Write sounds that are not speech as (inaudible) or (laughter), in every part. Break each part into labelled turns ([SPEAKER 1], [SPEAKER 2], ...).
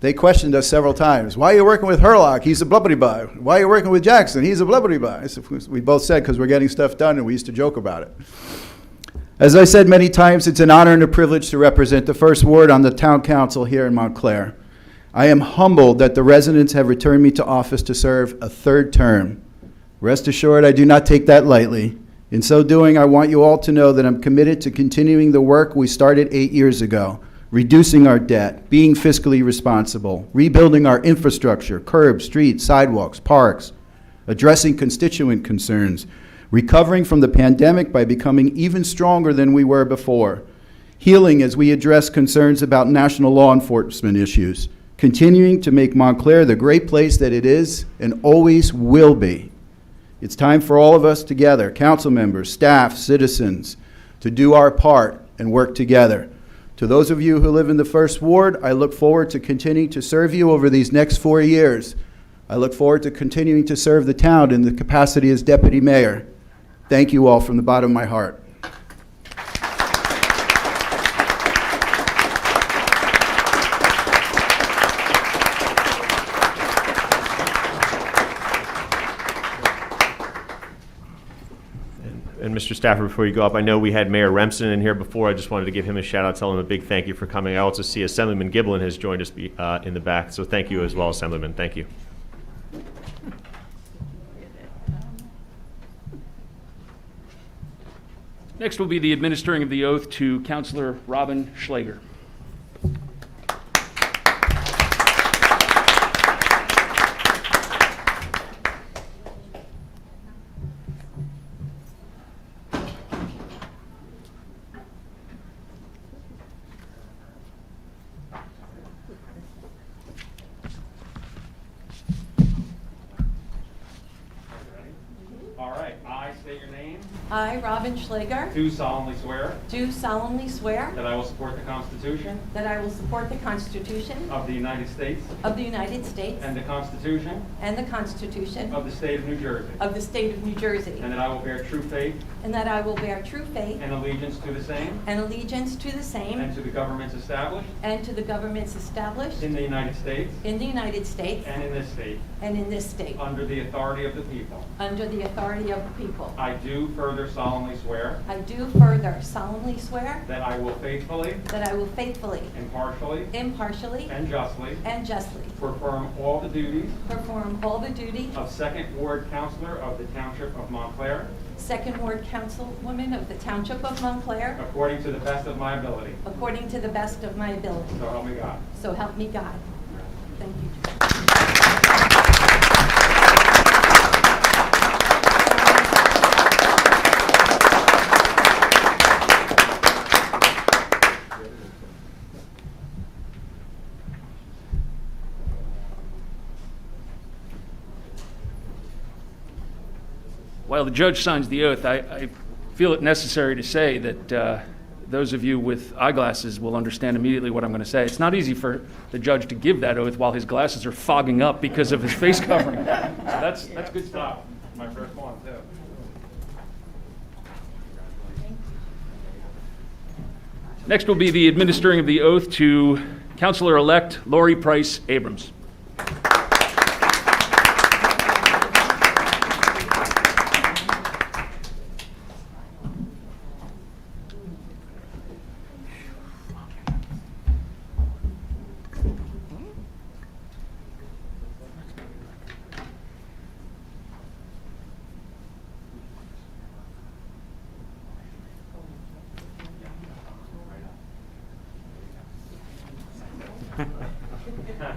[SPEAKER 1] They questioned us several times. Why are you working with Herlock? He's a blubbity blah. Why are you working with Jackson? He's a blubbity blah. I said, We both said because we're getting stuff done, and we used to joke about it. As I said many times, it's an honor and a privilege to represent the First Ward on the Town Council here in Montclair. I am humbled that the residents have returned me to office to serve a third term. Rest assured, I do not take that lightly. In so doing, I want you all to know that I'm committed to continuing the work we started eight years ago, reducing our debt, being fiscally responsible, rebuilding our infrastructure, curbs, streets, sidewalks, parks, addressing constituent concerns, recovering from the pandemic by becoming even stronger than we were before, healing as we address concerns about national law enforcement issues, continuing to make Montclair the great place that it is and always will be. It's time for all of us together, council members, staff, citizens, to do our part and work together. To those of you who live in the First Ward, I look forward to continuing to serve you over these next four years. I look forward to continuing to serve the town in the capacity as deputy mayor. Thank you all from the bottom of my heart.
[SPEAKER 2] And Mr. Stafford, before you go up, I know we had Mayor Remsen in here before. I just wanted to give him a shout out, tell him a big thank you for coming. I also see Assemblyman Giblin has joined us be- uh, in the back, so thank you as well, Assemblyman. Thank you.
[SPEAKER 3] Next will be the administering of the oath to Counselor Robin Schlager.
[SPEAKER 4] All right, I state your name,
[SPEAKER 5] I, Robin Schlager,
[SPEAKER 4] do solemnly swear
[SPEAKER 5] do solemnly swear
[SPEAKER 4] that I will support the Constitution
[SPEAKER 5] that I will support the Constitution
[SPEAKER 4] of the United States
[SPEAKER 5] of the United States
[SPEAKER 4] and the Constitution
[SPEAKER 5] and the Constitution
[SPEAKER 4] of the State of New Jersey,
[SPEAKER 5] of the State of New Jersey,
[SPEAKER 4] and that I will bear true faith
[SPEAKER 5] and that I will bear true faith
[SPEAKER 4] and allegiance to the same
[SPEAKER 5] and allegiance to the
[SPEAKER 4] and
[SPEAKER 5] same
[SPEAKER 4] to the governments established
[SPEAKER 5] and to the governments established
[SPEAKER 4] in the United States
[SPEAKER 5] in the United States
[SPEAKER 4] and in this state,
[SPEAKER 5] and in this state,
[SPEAKER 4] under the authority of the people.
[SPEAKER 5] under the authority of the people.
[SPEAKER 4] I do further solemnly swear
[SPEAKER 5] I do further solemnly swear
[SPEAKER 4] that I will faithfully,
[SPEAKER 5] that I will faithfully,
[SPEAKER 4] impartially,
[SPEAKER 5] impartially,
[SPEAKER 4] and justly
[SPEAKER 5] and justly
[SPEAKER 4] perform all the duties
[SPEAKER 5] perform all the duty
[SPEAKER 4] of Second Ward Counselor of the Township of Montclair
[SPEAKER 5] Second Ward Councilwoman of the Township of Montclair
[SPEAKER 4] according to the best of my ability.
[SPEAKER 5] According to the best of my ability.
[SPEAKER 4] So help me God.
[SPEAKER 5] So help me God. Thank you.
[SPEAKER 3] While the judge signs the oath, I, I feel it necessary to say that uh, those of you with eyeglasses will understand immediately what I'm going to say. It's not easy for the judge to give that oath while his glasses are fogging up because of his face (laughs) covering. So that's, that's good stuff.
[SPEAKER 4] stuff. My first one, too.
[SPEAKER 3] Next will be the administering of the oath to Counselor-elect Lori Price Abrams.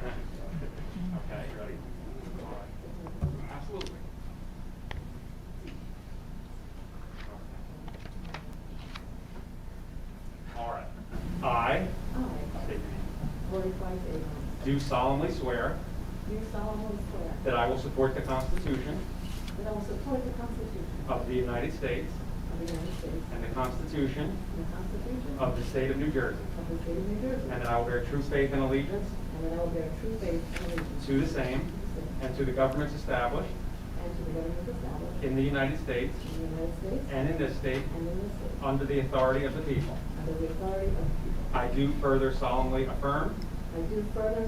[SPEAKER 4] Okay, you ready? Absolutely. All right. I state your name,
[SPEAKER 6] Lori Price Abrams,
[SPEAKER 4] do solemnly swear
[SPEAKER 6] do solemnly swear
[SPEAKER 4] that I will support the Constitution
[SPEAKER 6] that I will support the Constitution
[SPEAKER 4] of the United States
[SPEAKER 6] of the United States
[SPEAKER 4] and the Constitution
[SPEAKER 6] and the Constitution
[SPEAKER 4] of the State of New Jersey,
[SPEAKER 6] of the State of New Jersey,
[SPEAKER 4] and that I will bear true faith and allegiance
[SPEAKER 6] and that I will bear true faith and allegiance
[SPEAKER 4] to the same
[SPEAKER 6] to the same
[SPEAKER 4] and to the governments established
[SPEAKER 6] and to the government established
[SPEAKER 4] in the United States
[SPEAKER 6] in the United States
[SPEAKER 4] and in this state
[SPEAKER 6] and in this state,
[SPEAKER 4] under the authority of the people.
[SPEAKER 6] under the authority of the people.
[SPEAKER 4] I do further solemnly affirm
[SPEAKER 6] I do further